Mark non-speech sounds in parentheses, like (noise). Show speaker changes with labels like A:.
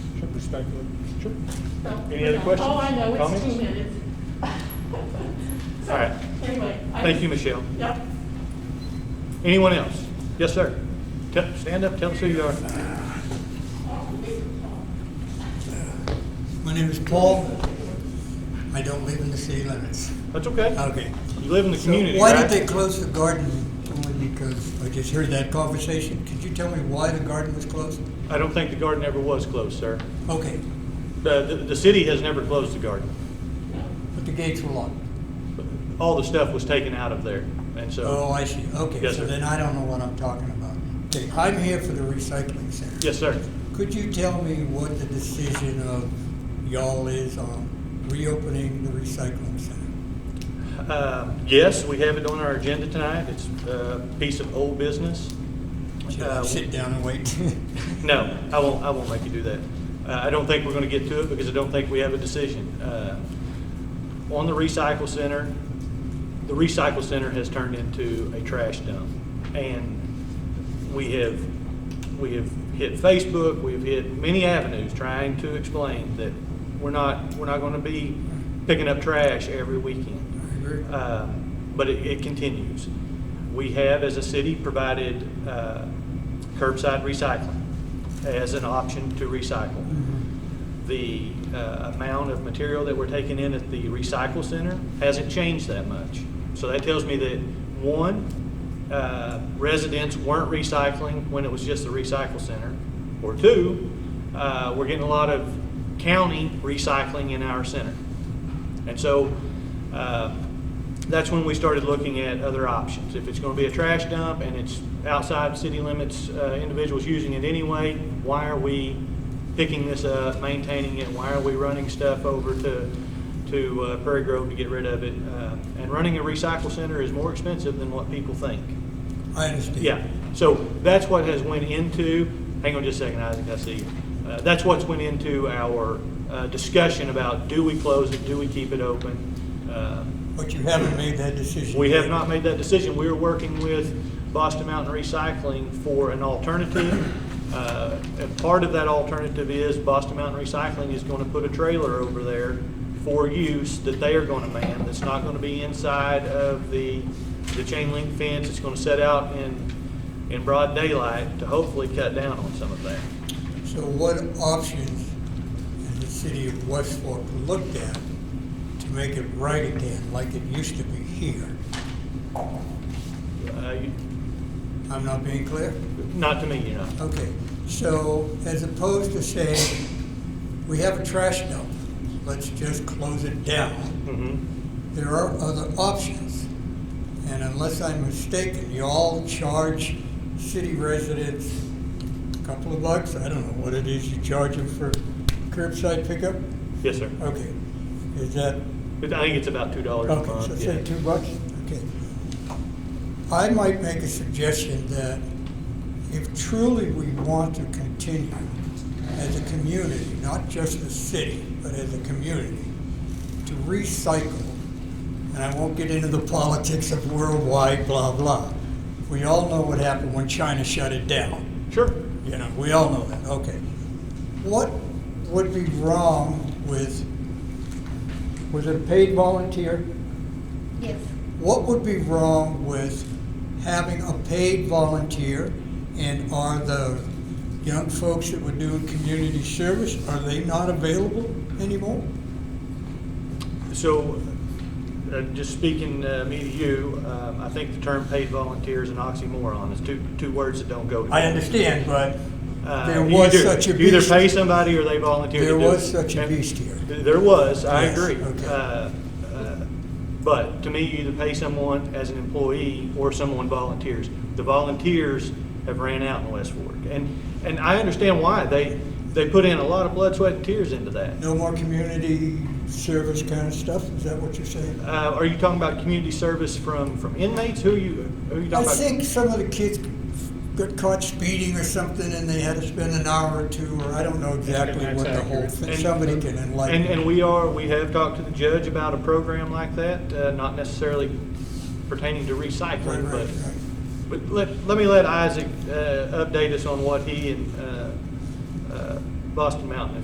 A: respectfully. Sure.
B: So-
A: Any other questions,
B: Oh, I know, it's
A: comments?
B: two minutes. So,
A: All right.
B: Anyway. I-
A: Thank you, Michelle.
B: Yep.
A: Anyone else? Yes, sir. Tell- Stand up, tell us who you are.
C: My name is Paul. I don't live in the city limits.
A: That's okay.
C: Okay.
A: You live in the
C: So
A: community,
C: Why
A: right?
C: did they close the garden? Only because I just heard that conversation. Could you tell me why the garden was closed?
A: I don't think the garden ever was closed, sir.
C: Okay,
A: The, the, the city has never closed the garden.
C: but the gates were locked.
A: All the stuff was taken out of there, and
C: Oh,
A: so,
C: I see. Okay,
A: Yes,
C: so
A: sir.
C: then I don't know what I'm talking about. Okay, I'm here for the recycling center.
A: yes, sir.
C: Could you tell me what the decision of y'all is on reopening the recycling center?
A: Uh, Yes, we have it on our agenda tonight. It's a piece of old business.
C: Should
A: Uh,
C: I sit down and wait? (laughs)
A: No, I won't, I won't make you do that. Uh, I don't think we're gonna get to it because I don't think we have a decision. Uh, On the recycle center, the recycle center has turned into a trash dump. And we have, we have hit Facebook, we've hit many avenues trying to explain that we're not, we're not gonna be picking up trash every weekend.
C: I agree.
A: Um, But it, it continues. We have, as a city, provided uh, curbside recycling as an option to recycle.
C: Mm-hmm.
A: The uh, amount of material that we're taking in at the recycle center hasn't changed that much. So that tells me that, one, uh, residents weren't recycling when it was just the recycle center. Or two, uh, we're getting a lot of county recycling in our center. And so uh, that's when we started looking at other options. If it's going to be a trash dump and it's outside city limits, uh, individuals using it anyway, why are we picking this up, maintaining it? Why are we running stuff over to, to uh, Prairie Grove to get rid of it? Uh, And running a recycle center is more expensive than what people think.
C: I understand.
A: Yeah, so that's what has went into, hang on just a second, Isaac, I see you. Uh, That's what's went into our uh, discussion about do we close it, do we keep it open? Uh,
C: But you haven't made that decision.
A: We have
C: yet.
A: not made that decision. We are working with Boston Mountain Recycling for an alternative. Uh, And part of that alternative is Boston Mountain Recycling is going to put a trailer over there for use that they are going to man. That's not going to be inside of the, the chain link fence. It's going to set out in, in broad daylight to hopefully cut down on some of that.
C: So what options has the city of West Fork looked at to make it right again, like it used to be here?
A: Uh, you-
C: I'm not being clear?
A: Not to me, you know.
C: Okay, so as opposed to saying, we have a trash dump, let's just close it down,
A: Mhm.
C: there are other options. And unless I'm mistaken, you all charge city residents a couple of bucks, I don't know what it is you charge them for curbside pickup?
A: Yes, sir.
C: Okay, is that
A: But I think it's about $2 a month.
C: Okay, so
A: yeah.
C: say two bucks, okay. I might make a suggestion that if truly we want to continue as a community, not just the city, but as a community, to recycle, and I won't get into the politics of worldwide blah blah. We all know what happened when China shut it down.
A: Sure.
C: You know, we all know that, okay. What would be wrong with, was it a paid volunteer?
B: Yes.
C: What would be wrong with having a paid volunteer? And are the young folks that were doing community service, are they not available anymore?
A: So, uh, just speaking uh, me to you, um, I think the term paid volunteer is an oxymoron. It's two, two words that don't go
C: I
A: together.
C: understand, but
A: Uh,
C: there
A: you
C: was
A: either-
C: such a
A: you Either
C: beast.
A: pay somebody or they volunteer to
C: There
A: do it.
C: was such a
A: And-
C: beast here.
A: There was, I
C: Yes,
A: agree.
C: okay.
A: Uh, uh, But to me, you either pay someone as an employee or someone volunteers. The volunteers have ran out in West Fork. And, and I understand why. They, they put in a lot of blood, sweat, and tears into that.
C: No more community service kind of stuff, is that what you're saying?
A: Uh, are you talking about community service from, from inmates? Who are you, who are you talking
C: I
A: about?
C: think some of the kids got caught speeding or something, and they had to spend an hour or two, or I don't know exactly what the whole thing,
A: And-
C: somebody can enlighten.
A: And, and we are, we have talked to the judge about a program like that, uh, not necessarily pertaining to
C: Right,
A: recycling,
C: right,
A: but,
C: right.
A: but let, let me let Isaac, uh, update us on what he and, uh, uh, Boston Mountain have